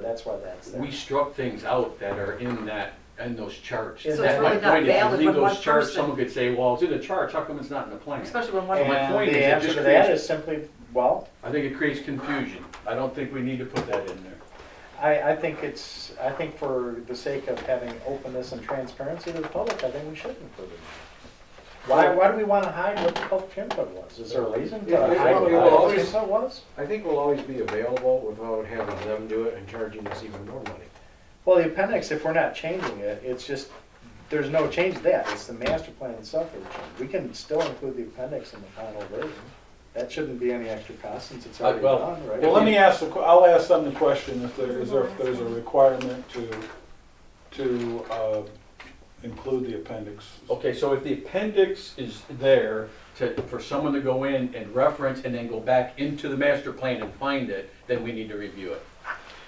that's why that's there. We struck things out that are in that, in those charts. So it's That's my really not point, if you valid leave with those one charts, person. Someone could say, well, it's in the chart, how come it's not in the plan? Especially when one, my And point is it the answer just to that creates- is simply, well, I think it creates confusion. I don't think we need to put that in there. I, I think it's, I think for the sake of having openness and transparency to the public, I think we should include it. Why, why do we want to hide what the public input was? Is there a reason to Yeah, hide we- what we the will public always- input was? I think we'll always be available without having them do it and charging us even more money. Well, the appendix, if we're not changing it, it's just, there's no change to that. It's the master plan itself that we change. We can still include the appendix in the final version. That shouldn't be any extra cost since it's Uh, already well, done, right? Well, let me ask, the que- I'll ask them the question, if there, is there, if there's a requirement to, to uh, include the appendix. Okay, so if the appendix is there to, for someone to go in and reference and then go back into the master plan and find it, then we need to review it.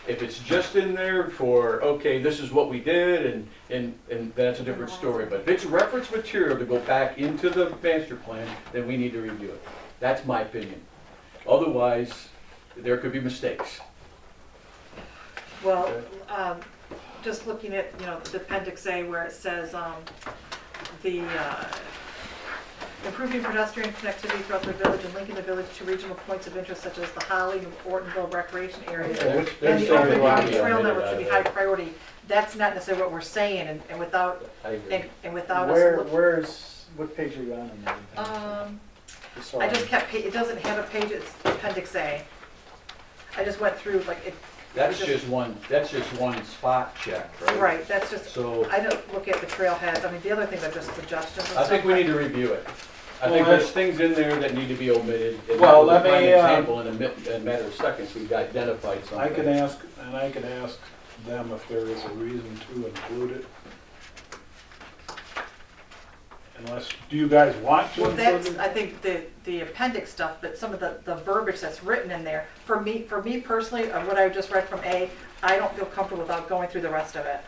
If it's just in there for, okay, this is what we did and, and, and that's a different story. But if it's reference material to go back into the master plan, then we need to review it. That's my opinion. Otherwise, there could be mistakes. well, um, just looking at, you know, the appendix A where it says, um, the, uh, improving pedestrian connectivity throughout the village and linking the village to regional points of interest such as the Holly and Ortonville recreation areas. Yeah, which- And There's the something open wrong county with that. trail network should be high priority. That's not necessarily what we're saying and, and without, I agree. and, and without us. Where, look- where's, what page are you on in the appendix? Um, Sorry. I just kept, pa- it doesn't have a page, it's appendix A. I just went through like it, That's just one, that's just one spot check, right? right, that's just, So. I don't look at the trailheads, I mean, the other things are just suggestions and I think stuff, we but- need to review it. I think Well, there's things in there that need to be omitted. and Well, we'll let find me, an uh, Example in a mi- in a matter of seconds, we've identified something. I can ask, and I can ask them if there is a reason to include it. Unless, do you guys want to Well, include that's, it? I think the, the appendix stuff, but some of the, the verbiage that's written in there, for me, for me personally, of what I just read from A, I don't feel comfortable without going through the rest of it.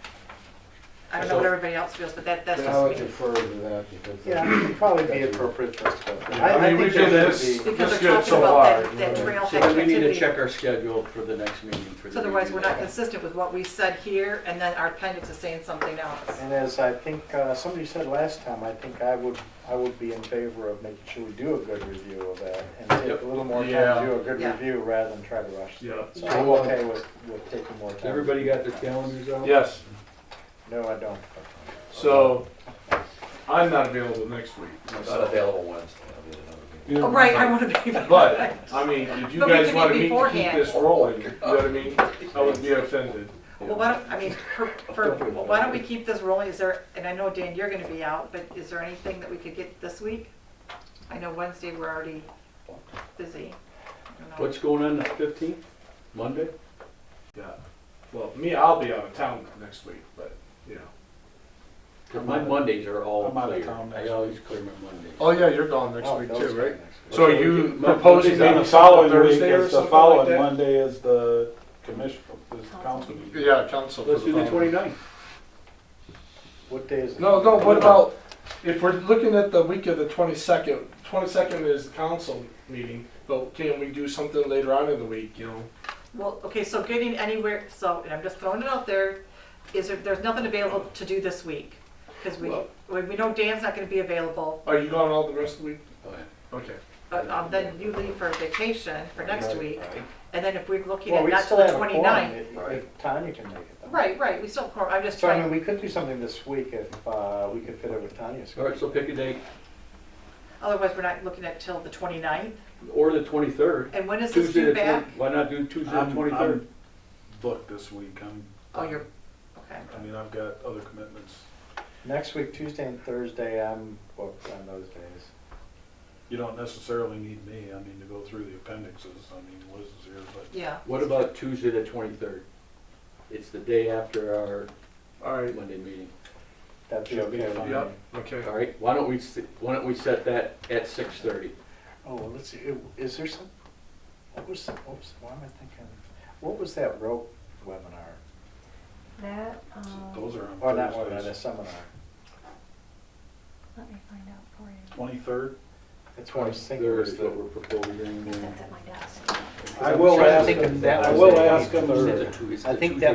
I don't know what So- everybody else feels, but that, that's Yeah, I would just me. defer to that because. Yeah, it'd probably be appropriate for us to go. through. I mean, think we there should did this. be- Because That's they're good talking so about that, far, that yeah. trailhead So then we need to check connectivity. our schedule for the next meeting for the. So Otherwise, we're not review. consistent with what we said here, and then our appendix is saying something else. And as I think, uh, somebody said last time, I think I would, I would be in favor of making sure we do a good review of that and take Yep. a little more time Yeah. to do a good Yeah. review rather than try to rush. through uh, it. So Yeah. uh, I'm okay with, with taking more time. Everybody got their calendars out? Yes, No, I don't. so I'm not available next week. Not myself. available Wednesday, I'll be at another meeting. You- Oh, Right, I want to be. But, I mean, if you But we guys can want to meet meet to keep beforehand. this rolling, you know what I mean? I would be offended. Well, why don't, I mean, for, for, why don't we keep this rolling, is there, and I know Dan, you're gonna be out, but is there anything that we could get this week? I know Wednesday, we're already busy. I don't know. What's going on the fifteenth, Monday? Yeah. Well, me, I'll be out of town next week, but, you know. 'Cause my Mondays are all I'm out of clear. town I next always clear my Mondays. yeah, you're gone Oh, those guys next week. So Okay, you we- Mon- proposing Monday's out. maybe The something following week Thursday or is, the something like following that? Monday is the commission, is the council meeting. Yeah, council. Let's do the 29th. What day is it? No, no, what about, if we're looking at the week of the twenty-second, twenty-second is the council meeting, but can we do something later on in the week, you know? Well, okay, so getting anywhere, so, and I'm just throwing it out there, is there, there's nothing available to do this week? Cause we, Well- we we know Dan's not gonna be available, Are you gone all the rest of the week? Oh, yeah. Okay. but, um, then you leave for vacation for next Right, week, and then if we're looking Well, at we not still till the have a quorum twenty-ninth. if- if Tanya can make it. though. Right, right, we still, have quorum. I'm just So I mean, trying, we could do something this week if, uh, we could fit it with Tanya's. All right, so pick a date, otherwise we're not looking at till the twenty-ninth, or the twenty-third. and when is this Tuesday, due the back? 20 why not do Tuesday, the I'm- twenty-third? I'm booked this week, I'm. Oh, you're, okay. I mean, I've got other commitments. Next week, Tuesday and Thursday, I'm booked on those days. You don't necessarily need me, I mean, to go through the appendixes, I mean, Liz is here, but. Yeah, What about Tuesday, the twenty-third? It's the day after our All right. Monday meeting. That'd be Should be okay with fine. me. Yep, okay. All right, why don't we, s- why don't we set that at six thirty? Oh, well, let's see, it- is there some, what was, some- oops, why am I thinking, what was that rope webinar? That, um, Those are on Or not webinar, that Thursdays. seminar. let me find out for you. Twenty-third? That's what I was thinking Uh, There was is what the, we're proposing. That's at my desk. I will I'm sure ask, think if that I was will a- ask him, them or- It's a two- it's a I think Tuesday.